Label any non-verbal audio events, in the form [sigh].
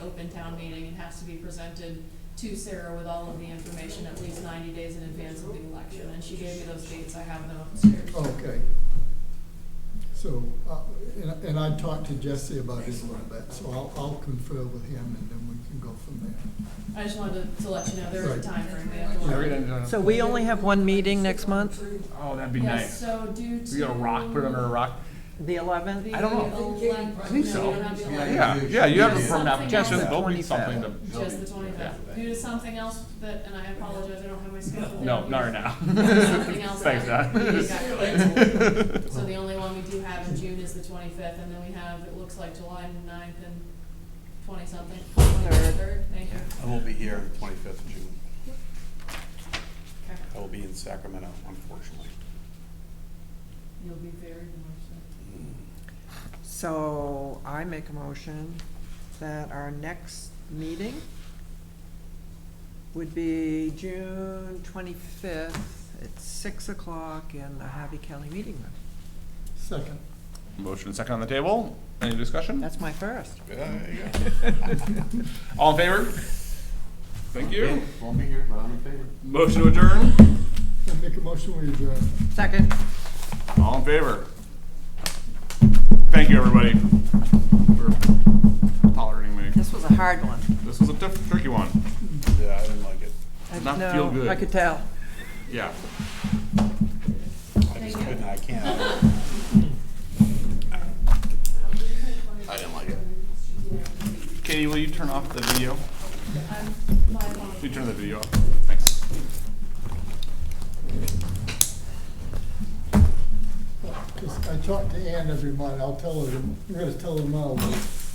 open town meeting and has to be presented to Sarah with all of the information at least ninety days in advance of the election, and she gave me those dates, I have them upstairs. Okay. So, uh, and- and I talked to Jesse about it a little bit, so I'll, I'll confer with him and then we can go from there. I just wanted to, to let you know there Right. is a timeframe we have to. We're work. gonna do it. So we only have one meeting next month, Oh, that'd be Yes, nice. so due to. We got a rock, put it under a rock. the the eleventh? I don't know. elec- I think no, so. we don't have the election. Yeah, yeah, you have a firm Something application, else. there'll be something to, Just the twenty-fifth. Due to something else that, and I apologize, I don't have my schedule. no, not right now. Something else. [laughs] Thanks, that Dad. meeting got [laughs] canceled. So the only one we do have in June is the twenty-fifth, and then we have, it looks like July 9th and twenty-something. Third. Thank you. I will be here on the twenty-fifth of June. Okay. I will be in Sacramento, unfortunately. You'll be very much So I make a motion that our next meeting would be June twenty-fifth at six o'clock in the Harvey County Meeting Room. Second. Motion second on the table. Any discussion? That's my first. All in favor? Thank you. Won't be here, but I'm in favor. Motion to adjourn. I make a motion we adjourn. Second. All in favor? Thank you, everybody, for tolerating me. This was a hard one. This was a tough, tricky one. Yeah, I didn't like it. I Did not know, feel good. I could tell. Yeah. I just couldn't, I can't. [laughs] I didn't like it. Katie, will you turn off the video? nice. My You turn the video off. Thanks. Uh, Just- I talk to Ann every month, I'll tell her, I'm gonna tell her now, but